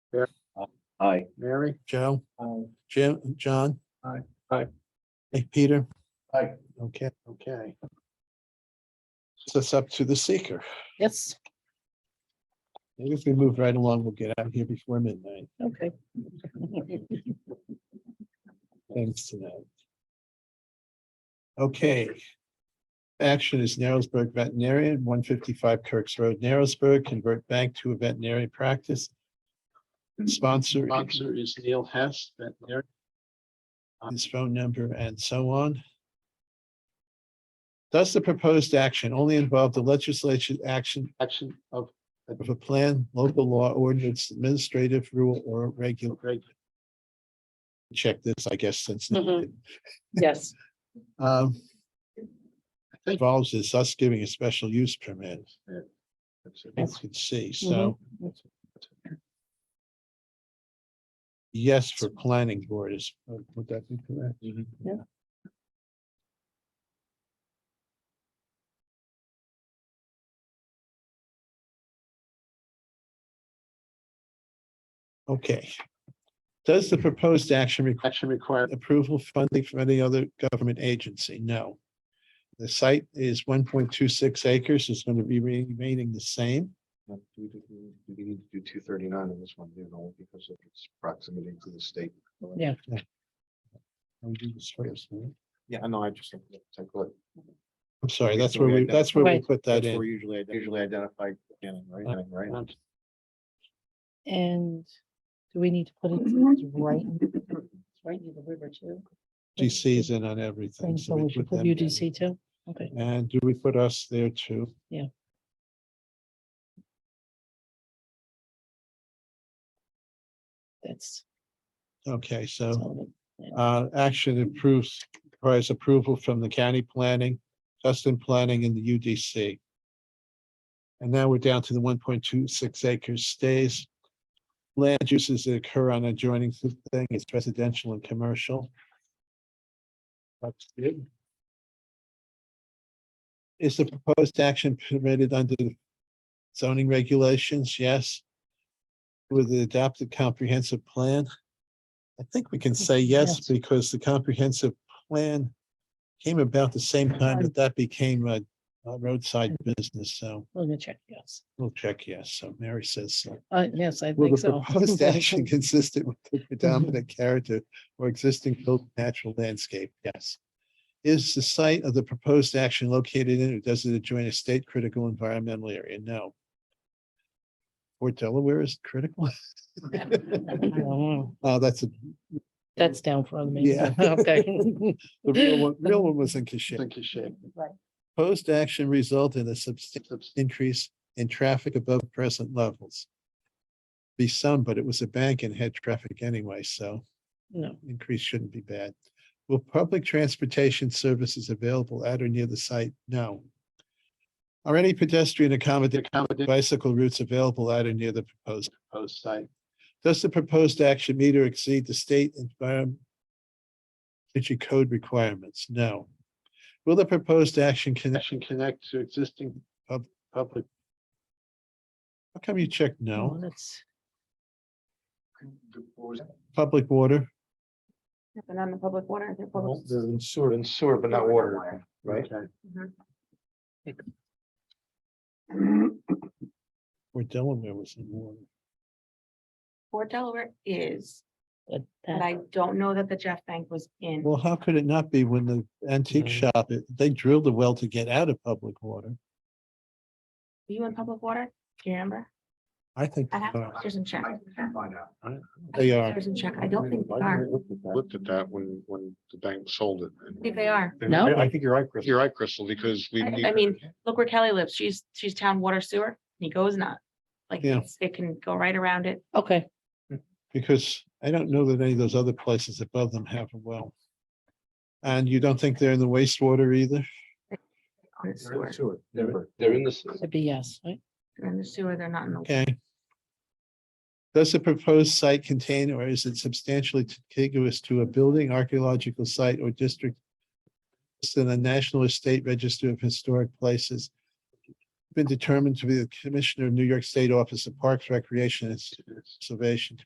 Yeah. Aye. Mary? Joe, Aye. Jim, John? Aye. Aye. Hey, Peter? Aye. Okay, Okay, so it's up to the seeker. Yes, Maybe if we move right along, we'll get out of here before midnight. okay. Thanks to that. Okay. Action is Narrowsburg veterinarian, one fifty-five Kirk's Road, Narrowsburg, convert bank to a veterinary practice. Sponsor. Mm-hmm. Sponsor is Neil Hess, veterinarian. His phone number and so on. Does the proposed action only involve the legislation action? Action of. Of a plan, local law ordinance, administrative rule or regular. Check this, I guess, since. Mhm. Yes, Um. Involves is us giving a special use permit, that's you it. can see, so. Yes, for planning board is, uh, would that be correct? Mm-hmm. Yeah. Okay. Does the proposed action require? Action require. Approval funding from any other government agency? No. The site is one point two six acres, it's going to be remaining the same. Do Um, we do- do we need to do two thirty-nine on this one, you know, because of its proximity to the state? Yeah. I'll do this first, right? Yeah, I know, I just think that's a good- I'm sorry, that's so where we we, identify- that's where we Right. put that that's where in. Usually, I usually Uh, identified, right, right? and do we need to put it it's right? It's right near the river too. UDC's in on everything. And so we should put them down. UDC too. Okay, And do we put us there too? Yeah. that's. Okay, so. zoning. Uh, action approves, requires approval from the county planning, Justin Planning and the UDC. And now we're down to the one point two six acres stays. Land uses that occur on adjoining thing is residential and commercial. That's good. Is the proposed action permitted under the zoning regulations? Yes. With the adopted comprehensive plan? I think we can say yes, Yes. because the comprehensive plan came about the same time that that became a a roadside Mm-hmm. business, so We're gonna check, yes. we'll check yes. So Mary says so. Uh, yes, I Will think the so. Mm-hmm. proposed action consistent with the predominant character or existing built natural landscape? Yes. Is the site of the proposed action located in or does it adjoin a state critical environmental area? No. Or Delaware is critical? Mm, Oh, that's a, That's down from me. Yeah. Okay. the real one, real one was in Kashib. Right. Proposed action result in a substantial increase in traffic above present levels. Be some, but it was a bank and had traffic anyway, so. No, increase shouldn't be bad. Will public transportation services available at or near the site? No. Are any pedestrian accommodate bicycle routes available at or near the proposed proposed site? Does the proposed action meet or exceed the state environment energy code requirements? No. Will the proposed action connection connect to existing pub- public? How come you checked no, no? that's, Public water? And on the public water, they're public. Sewer. And sewer, but not water, right? Mm-hmm. Or Delaware was in water? Port Delaware is, but but that, I don't know that the Jeff Bank was in. Well, how could it not be when the antique shop, it- they drilled a well to get out of public water? Were you in public water? Do you remember? I think Uh, I they have, are. there's a check. They are. There's a check. I don't think they are. looked at that when, when the bank sold it. I think they are. No? I think you're right, Chris. You're right, Crystal, because we. I- need- I mean, look where Kelly lives. She's, she's town water sewer. Nico is not. Like, Yeah. it's- it can go right around it. okay, Because I don't know that any of those other places above them have a well. And you don't think they're in the wastewater either? on the They're in sewer. the sewer. They're they're in the. it'd be yes, right? They're in the sewer, they're not in the. Okay. Does the proposed site contain or is it substantially contiguous to a building, archaeological site or district? It's in the National Estate Register of Historic Places. Been determined to be the Commissioner of New York State Office of Parks, Recreation and Conservation.